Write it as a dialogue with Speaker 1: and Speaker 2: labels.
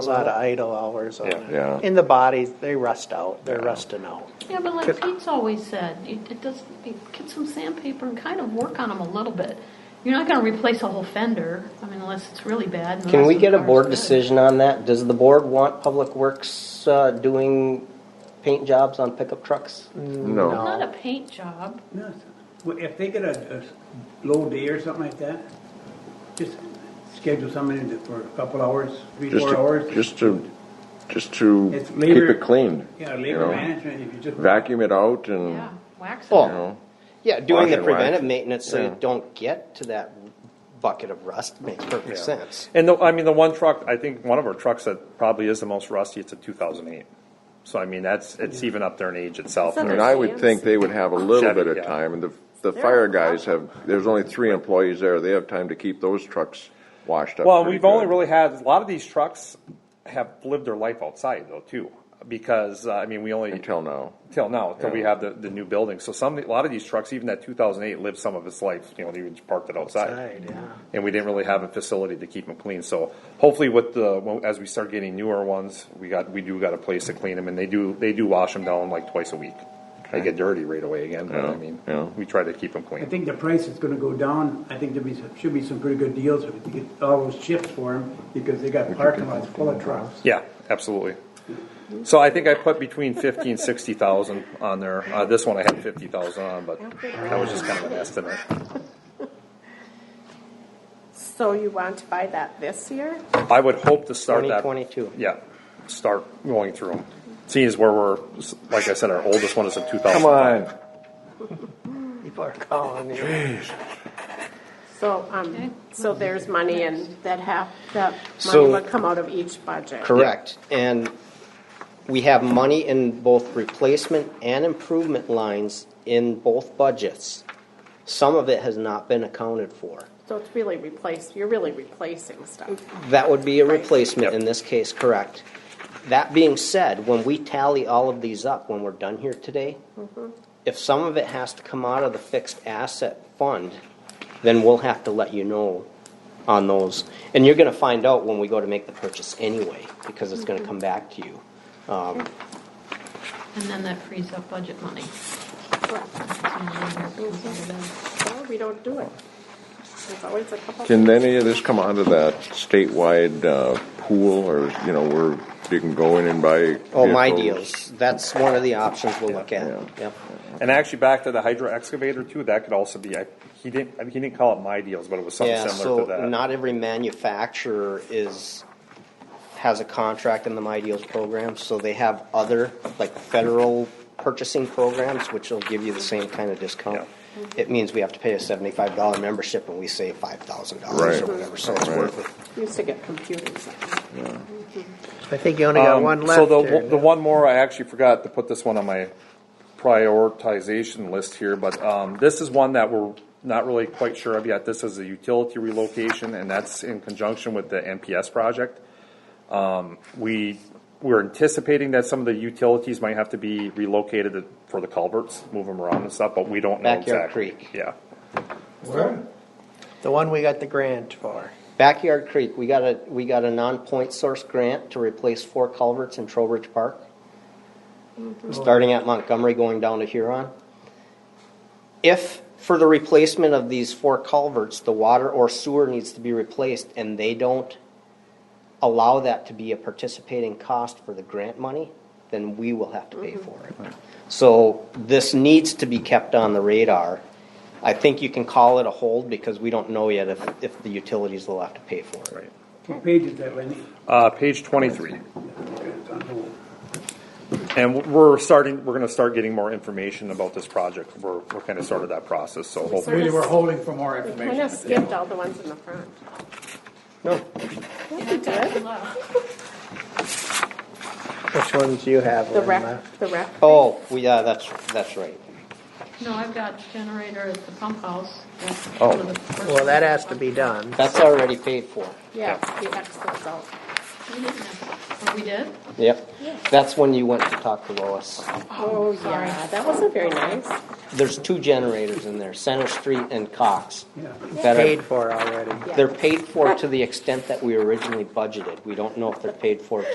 Speaker 1: A lot of idle hours on
Speaker 2: Yeah.
Speaker 1: it.
Speaker 3: Yeah.
Speaker 1: And the bodies, they rust out, they're
Speaker 3: Yeah.
Speaker 1: rusting out.
Speaker 4: Yeah, but
Speaker 1: Could-
Speaker 4: like Pete's always said, it it does, you get some sandpaper and kind of work on them a little bit. You're not gonna replace a whole fender, I mean, unless it's really bad. and the
Speaker 5: Can
Speaker 4: rest
Speaker 5: we
Speaker 4: of the
Speaker 5: get a
Speaker 4: car's
Speaker 5: board
Speaker 4: good.
Speaker 5: decision on that? Does the board want Public Works uh, doing paint jobs on pickup trucks?
Speaker 3: No.
Speaker 4: Not a paint job.
Speaker 6: No, it's- well, if they get a, a low day or something like that, just schedule someone in for a couple hours, three,
Speaker 3: Just
Speaker 6: four
Speaker 3: to,
Speaker 6: hours.
Speaker 3: just to, just to
Speaker 6: It's
Speaker 3: keep
Speaker 6: labor-
Speaker 3: it clean.
Speaker 6: Yeah,
Speaker 3: you
Speaker 6: labor
Speaker 3: know?
Speaker 6: management, if you just.
Speaker 3: Vacuum it out
Speaker 5: Hmm.
Speaker 3: and,
Speaker 4: Yeah, wax
Speaker 3: you
Speaker 5: Well,
Speaker 4: it.
Speaker 3: know,
Speaker 5: Yeah, doing
Speaker 3: Wash
Speaker 5: the
Speaker 3: it,
Speaker 5: preventive
Speaker 3: right?
Speaker 5: maintenance so
Speaker 3: Yeah.
Speaker 5: you don't get to that bucket of rust makes perfect sense.
Speaker 2: And the, I mean, the one truck, I think one of our trucks that probably is the most rusty, it's a two thousand eight. So I mean, that's, it's even up there in age itself.
Speaker 3: I mean, I would think they would have a little bit of
Speaker 2: Yeah.
Speaker 3: time, and the, the fire guys have, there's only three employees there, they have time to keep those trucks washed up.
Speaker 2: Well,
Speaker 3: pretty
Speaker 2: we've only
Speaker 3: good.
Speaker 2: really had, a lot of these trucks have lived their life outside though, too. Because, uh, I mean, we only,
Speaker 3: Until now.
Speaker 2: till now, till we have the, the new building. So some, a lot of these trucks, even that two thousand eight lived some of its life, you know, they just parked it outside.
Speaker 1: Outside, yeah.
Speaker 2: And we didn't really have a facility to keep them clean. So hopefully with the, well, as we start getting newer ones, we got, we do got a place to clean them and they do, they do wash them down like twice a week. They get dirty right away again, but I
Speaker 3: Yeah,
Speaker 2: mean,
Speaker 3: yeah.
Speaker 2: we try to keep them clean.
Speaker 6: I think the price is gonna go down. I think there be, some- should be some pretty good deals if you get all those chips for them, because they got parking lots full of trucks.
Speaker 2: Yeah, absolutely. So I think I put between fifty and sixty thousand on there. Uh, this one I had fifty thousand on, but that was just kind of an estimate.
Speaker 7: So you want to buy that this year?
Speaker 2: I would hope to start that.
Speaker 5: 2022.
Speaker 2: Yeah, start going through them. Seeing as where we're, like I said, our oldest one is in two thousand.
Speaker 3: Come on,
Speaker 1: People are calling you.
Speaker 7: So, um, so there's money and that half, that money
Speaker 5: So-
Speaker 7: would come out of each budget.
Speaker 5: Correct. And we have money in both replacement and improvement lines in both budgets. Some of it has not been accounted for.
Speaker 7: So it's really replaced, you're really replacing stuff.
Speaker 5: That would be a
Speaker 7: Right.
Speaker 5: replacement in this case, correct. That being said, when we tally all of these up, when we're done here today, if some of it has to come out of the fixed asset fund, then we'll have to let you know on those. And you're gonna find out when we go to make the purchase anyway, because it's gonna come back to you.
Speaker 4: And then that frees up budget money. Well,
Speaker 7: So we don't do it. There's always a couple.
Speaker 3: can any of this come onto that statewide, uh, pool, or, you know, where you can go in and buy?
Speaker 5: Oh, my
Speaker 3: vehicles?
Speaker 5: deals, that's one of the options we'll look at,
Speaker 3: Yeah.
Speaker 5: yep.
Speaker 2: And actually, back to the hydro excavator too. That could also be. I, he didn't. I mean, he didn't call it my deals, but it was something
Speaker 5: Yeah,
Speaker 2: similar
Speaker 5: so
Speaker 2: to that. Um,
Speaker 5: not every manufacturer is, has a contract in the My Deals program, so they have other, like federal purchasing programs, which will give you the same kind of discount. It means we have to pay a seventy-five dollar membership and we save five thousand
Speaker 3: Right.
Speaker 5: dollars or whatever, so it's
Speaker 3: Right.
Speaker 5: worth it.
Speaker 7: Used to get computers.
Speaker 1: I think you only got
Speaker 2: Um,
Speaker 1: one
Speaker 2: So
Speaker 1: left
Speaker 2: the,
Speaker 1: there.
Speaker 2: the one more, I actually forgot to put this one on my prioritization list here, but um, this is one that we're not really quite sure of yet. This is a utility relocation, and that's in conjunction with the NPS project. Um, We, we're anticipating that some of the utilities might have to be relocated for the culverts, move them around and stuff, but we don't know
Speaker 5: Backyard
Speaker 2: exactly.
Speaker 5: Creek.
Speaker 2: Yeah.
Speaker 1: The one we got the grant for.
Speaker 5: Backyard Creek, we got a, we got a non-point source grant to replace four culverts in Trowbridge Park. Starting at Montgomery going down to Huron. If for the replacement of these four culverts, the water or sewer needs to be replaced and they don't allow that to be a participating cost for the grant money, then we will have to pay for it. So this needs to be kept on the radar. I think you can call it a hold because we don't know yet if, if the utilities will have to pay for it.
Speaker 2: Right.
Speaker 6: What page is that, Lenny?
Speaker 2: Uh, Page twenty-three.
Speaker 6: It's on hold.
Speaker 2: And we're starting, we're gonna start getting more information about this project. We're, we're kind of started that process, so hopefully.
Speaker 7: Sort
Speaker 8: We
Speaker 7: of-
Speaker 8: were holding for more
Speaker 7: We
Speaker 8: information.
Speaker 7: kind of skipped all the ones in the front. No. we did.
Speaker 1: Which ones do you have?
Speaker 7: The
Speaker 1: Lynn,
Speaker 7: rec,
Speaker 1: left?
Speaker 7: the rec.
Speaker 5: Oh, we, yeah, that's, that's right.
Speaker 4: No, I've got generator at the pump house. That's
Speaker 2: Oh.
Speaker 4: one of the first
Speaker 1: Well, that
Speaker 4: ones.
Speaker 1: has to be done.
Speaker 5: That's already paid for.
Speaker 7: Yeah, the X goes out.
Speaker 4: We didn't have- Oh, We did?
Speaker 5: Yep. That's when you went to talk to Lois.
Speaker 7: Oh, yeah, that wasn't very nice.
Speaker 5: There's two generators in there, Center Street and Cox.
Speaker 6: Yeah.
Speaker 5: that are-
Speaker 1: Paid for already.
Speaker 5: They're paid for to the extent that we originally budgeted. We don't know if they're paid for